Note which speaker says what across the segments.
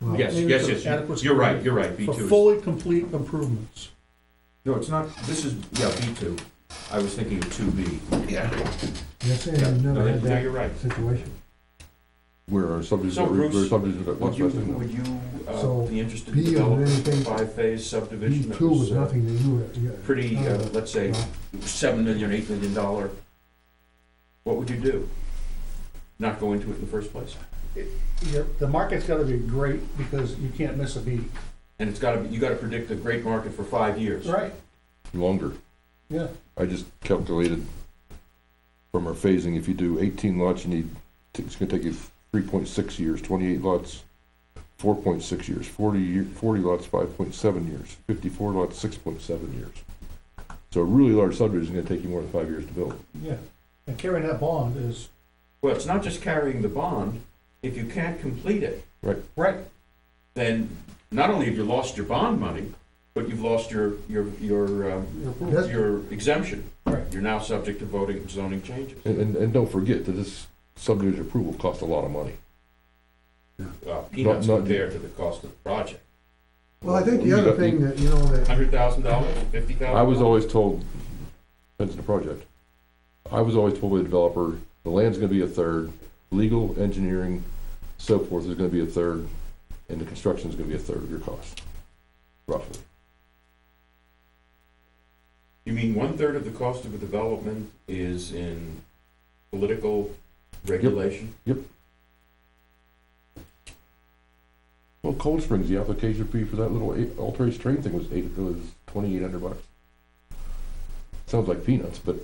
Speaker 1: Well,
Speaker 2: Yes,
Speaker 1: maybe
Speaker 2: yes,
Speaker 1: for
Speaker 2: yes, you-
Speaker 1: adequate
Speaker 2: you're right,
Speaker 1: security.
Speaker 2: you're right, B
Speaker 1: For
Speaker 2: two is-
Speaker 1: fully complete improvements.
Speaker 2: No, it's not, this is, yeah, B two. I was thinking of two B. Yeah.
Speaker 3: You're saying you've
Speaker 2: No,
Speaker 3: never had
Speaker 2: no, you're
Speaker 3: that
Speaker 2: right.
Speaker 3: situation?
Speaker 4: Where are subdivisions,
Speaker 2: So, Bruce,
Speaker 4: where are subdivisions that
Speaker 2: Would
Speaker 4: much
Speaker 2: you,
Speaker 4: less than
Speaker 2: would you, uh,
Speaker 3: So,
Speaker 2: be interested in
Speaker 3: B on
Speaker 2: developing a
Speaker 3: anything,
Speaker 2: five-phase
Speaker 3: B
Speaker 2: subdivision that
Speaker 3: two was
Speaker 2: was uh,
Speaker 3: nothing to you. yeah.
Speaker 2: pretty, uh,
Speaker 3: Uh,
Speaker 2: let's say,
Speaker 3: no.
Speaker 2: seven million, eight million dollar? What would you do? Not go into it in the first place?
Speaker 1: Your- The market's gotta be great because you can't miss a beat.
Speaker 2: And it's gotta, be you gotta predict a great market for five years.
Speaker 1: Right.
Speaker 4: longer?
Speaker 1: Yeah.
Speaker 4: I just calculated from our phasing, if you do eighteen lots, you need, it's gonna take you three point six years, twenty-eight lots, four point six years, 40 year- 40 lots, five point seven years, fifty-four lots, six point seven years. So a really large subdivision is gonna take you more than five years to build.
Speaker 1: Yeah. And carrying that bond is.
Speaker 2: Well, it's not just carrying the bond. If you can't complete it,
Speaker 1: Right.
Speaker 2: then not only have you lost your bond money, but you've lost your, your, your, um,
Speaker 3: That's-
Speaker 2: your exemption.
Speaker 1: Right.
Speaker 2: You're now subject to voting and zoning changes.
Speaker 4: And, and, and don't forget that this subdivision approval costs a lot of money.
Speaker 2: Uh, Peanuts
Speaker 4: not-
Speaker 2: compared to the cost of the project.
Speaker 3: Well, I think the other thing that, you know, that,
Speaker 2: Hundred thousand dollars, fifty thousand?
Speaker 4: I was always told, depends on the project, I was always told by the developer, the land's gonna be a third, legal, engineering, so forth is gonna be a third, and the construction is gonna be a third of your cost, roughly.
Speaker 2: You mean one-third of the cost of a development is in political regulation?
Speaker 4: Well, Cold Springs, the application fee for that little eight- alteration train thing was eight, it was twenty-eight hundred bucks. Sounds like peanuts, but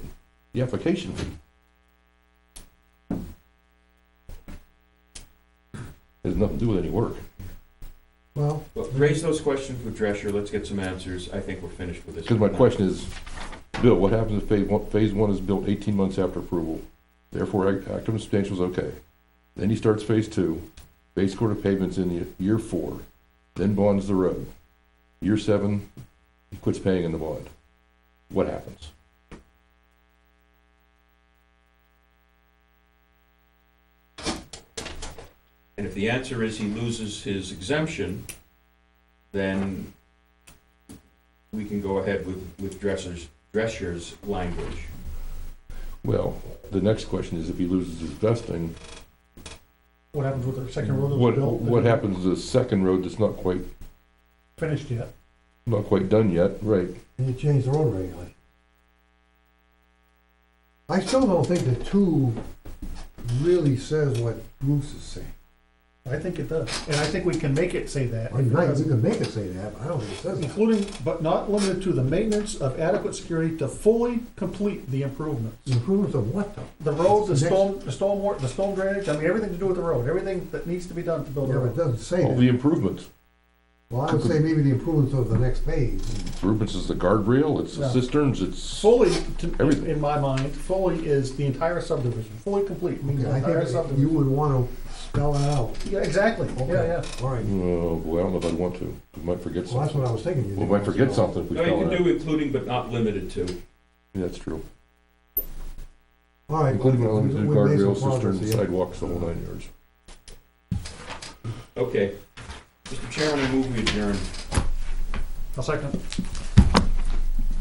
Speaker 4: the application fee. Has nothing to do with any work.
Speaker 3: well,
Speaker 2: Well, raise those questions with Drescher, let's get some answers. I think we're finished with this.
Speaker 4: Because my question is, Bill, what happens if phase one, phase one is built eighteen months after approval? Therefore, act- active and substantial is okay. Then he starts phase two, base coat of pavement's in ye- year four, then bonds the road. Year seven, he quits paying in the bond. What happens?
Speaker 2: And if the answer is he loses his exemption, then we can go ahead with, with Dresser's, Drescher's language.
Speaker 4: Well, the next question is if he loses his vesting,
Speaker 1: What happens with the second road that was
Speaker 4: what,
Speaker 1: built? that
Speaker 4: what
Speaker 1: isn't
Speaker 4: happens to the second road that's not quite,
Speaker 1: Finished yet.
Speaker 4: not quite done yet? Right.
Speaker 3: and you changed the road regulation. I still don't think the two really says what Bruce is saying.
Speaker 1: I think it does. And I think we can make it say that.
Speaker 3: Or not, you can make it say that, but I don't think it says that.
Speaker 1: Including, but not limited to, the maintenance of adequate security to fully complete the improvements.
Speaker 3: Improvements of what though?
Speaker 1: The road, the
Speaker 3: Next-
Speaker 1: storm, the storm, wa- the storm drainage, I mean, everything to do with the road, everything that needs to be done to build a
Speaker 3: Yeah, but it
Speaker 1: road.
Speaker 3: doesn't say
Speaker 4: All
Speaker 3: that.
Speaker 4: the improvements.
Speaker 3: Well, I would say maybe the improvements of the next phase.
Speaker 4: Improvements is the guardrail, it's the
Speaker 1: Yeah.
Speaker 4: cisterns, it's,
Speaker 1: Fully,
Speaker 4: Everything.
Speaker 1: to- in my mind, fully is the entire subdivision, fully complete means
Speaker 3: Okay,
Speaker 1: the
Speaker 3: I
Speaker 1: entire
Speaker 3: think you
Speaker 1: subdivision.
Speaker 3: would wanna spell it out.
Speaker 1: Yeah, exactly,
Speaker 3: Okay,
Speaker 1: yeah, yeah.
Speaker 3: All right,
Speaker 4: oh boy, I don't know if I'd want to. We might forget
Speaker 3: well,
Speaker 4: something.
Speaker 3: that's what I was thinking. you
Speaker 4: We
Speaker 3: did.
Speaker 4: might forget something if we
Speaker 2: No, you
Speaker 4: spell it
Speaker 2: can
Speaker 4: out.
Speaker 2: do including but not limited to.
Speaker 4: Yeah, That's true.
Speaker 3: All right.
Speaker 4: Including
Speaker 3: well,
Speaker 4: elements of
Speaker 3: we- we made some
Speaker 4: guardrails,
Speaker 3: progress
Speaker 4: cisterns,
Speaker 3: here.
Speaker 4: sidewalks, the whole nine yards.
Speaker 2: Okay. Mr. Chairman, I move we adjourn.
Speaker 1: A second.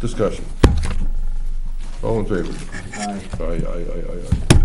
Speaker 4: Discussion. All in favor?
Speaker 2: Aye.
Speaker 4: Aye, aye, aye, aye, aye.